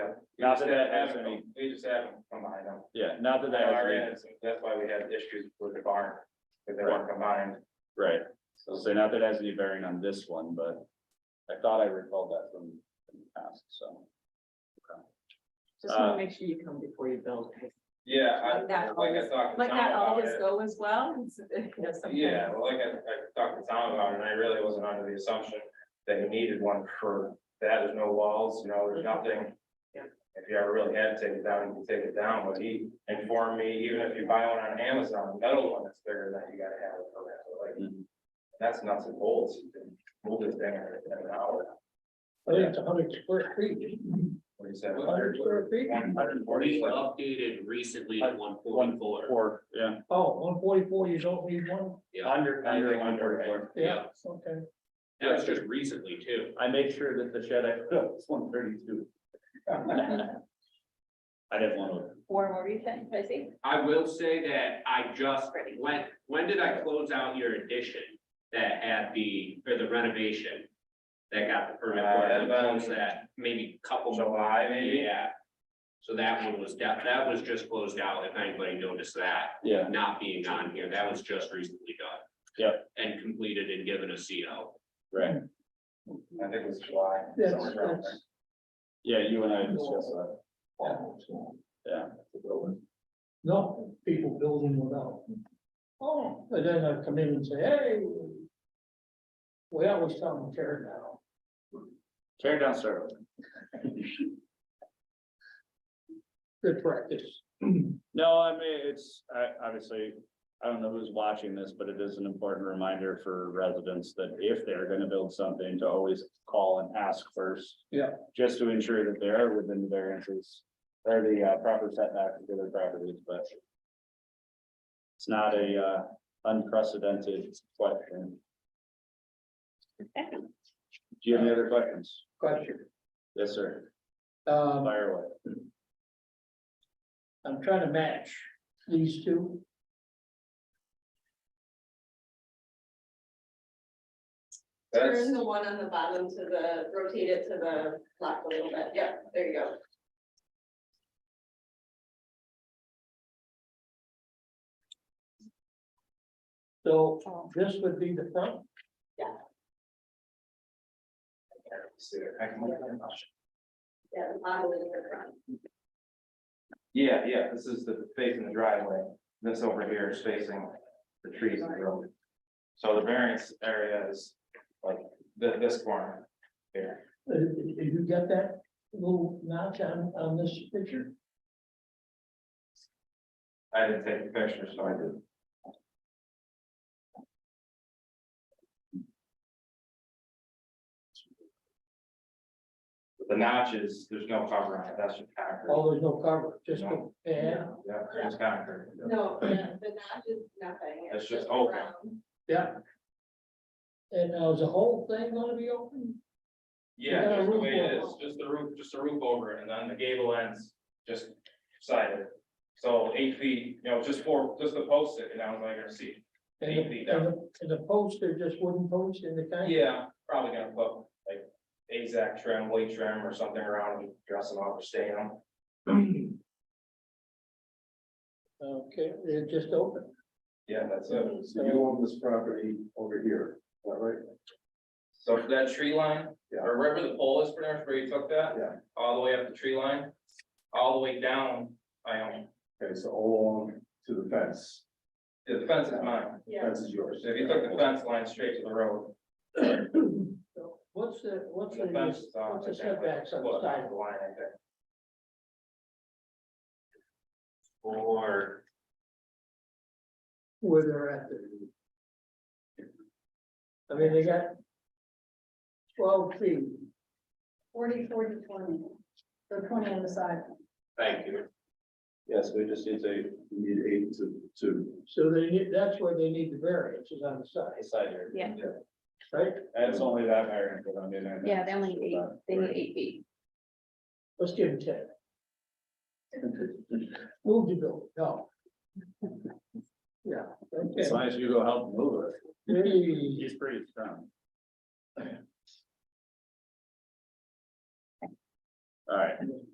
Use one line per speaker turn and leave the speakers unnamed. We just
Not that that
have-
has any-
We just have them from behind them.
Yeah, not that that has,
Our
any-
ends, That's why we have issues with the barn, because they weren't combined.
right, so not that it has any bearing on this one, but I thought I recalled that from from the past, so.
Just wanna
Uh,
make sure you come before you build. 'cause
Yeah, I,
Like that
like I
always-
talked to
Let
Tom
that
about
always
it.
go as well. and so- you know, sometimes-
Yeah, well, like I, I talked to Tom about it, and I really wasn't under the assumption that he needed one for that, there's no walls, you know, there's nothing.
Yeah.
If you ever really had to take it down, you could take it down, but he informed me, even if you buy one on Amazon, metal one that's bigger than that, you gotta have it for that, so, like.
Mhm.
That's nuts and bolts, you can move this thing in an hour,
I think it's a hundred square feet.
what he said.
Hundred square feet?
Hundred and
We
forty,
updated recently to one forty-four.
four, yeah.
Oh, one forty-four, you don't need one?
Under,
under
forty-four.
Yeah, okay.
That's just recently too.
I made sure that the shed I put up was one thirty-two. I didn't want to.
Warren, what were you saying, Tracy?
I will say that I just, when, when did I close out your addition that had the, or the renovation? That got the permit
Uh,
for
that
it, I closed
was-
that maybe couple.
July, maybe?
Yeah. So that one was, that, that was just closed out, if anybody noticed that.
Yeah,
not being on here, that was just recently done.
Yep.
And completed and given a CO.
right.
I think it was July.
That's,
somewhere around
that's,
Yeah, you and I discussed that. Yeah.
no, people building without. Oh, and then I come in and say, hey. We always tell them tear down.
Tear down, sir.
Good practice.
No, I mean, it's, I, obviously, I don't know who's watching this, but it is an important reminder for residents that if they're gonna build something, to always call and ask first.
Yeah.
Just to ensure that they are within the variances, or the uh, proper setback for their properties, but it's not a, uh, unprecedented question. Do you have any other questions?
Question.
Yes, sir.
Um,
Fire away.
I'm trying to match these two.
That's-
Turn the one on the bottom to the, rotate it to the left a little bit, yeah, there you go.
So this would be the front.
I can look at it.
Yeah, the bottom is the front.
Yeah, yeah, this is the facing the driveway, this over here is facing the trees and the road. So the variance area is like thi- this corner here.
Uh, Did you get that little notch on, on this picture?
I didn't take the picture, so I did. The notches, there's no cover on it, that's just concrete.
Oh, there's no cover, just, a
No.
yeah,
Yeah, it's concrete.
No, the notch is nothing.
It's just open.
round.
yeah. And now is the whole thing gonna be open? You
Yeah,
got a
just the
roof
way it
over
is, just the roof, just the roof over it, and then the gable ends just sided. So eight feet, you know, just four, just the post it, and I was like, I see.
And the- and the, and the posts, they're just wooden posts in the kind?
Yeah, probably gonna put like AZAC trim, weight trim or something around, and dress them up or stain them.
Okay, they're just open.
Yeah, that's it.
So you
own this property over here, is that right?
So for that tree line,
Yeah.
or wherever the pole is, pretty much where you took that.
Yeah.
All the way up the tree line, all the way down, I own,
Okay, so all along to the fence,
the fence is mine.
Yeah,
fence is yours.
So if you took the fence line straight to the road,
So What's the, what's
The fence
the,
is on,
what's the
I think, like,
setbacks on the
foot
side?
the line, I think.
Or
where they're at? I mean, they got twelve feet,
forty, forty, twenty, so twenty on the side.
thank you.
Yes, we just need to, we need eight to, to.
so they need, that's where they need the variance is on the side,
Side here.
Yeah.
right?
That's only that variance, but I mean. I-
Yeah, they only need eight, they need
Right.
eight feet.
Let's give him ten. Move the bill, no. Yeah, okay.
As long as you go help move it,
Hey,
he's pretty strong. All right.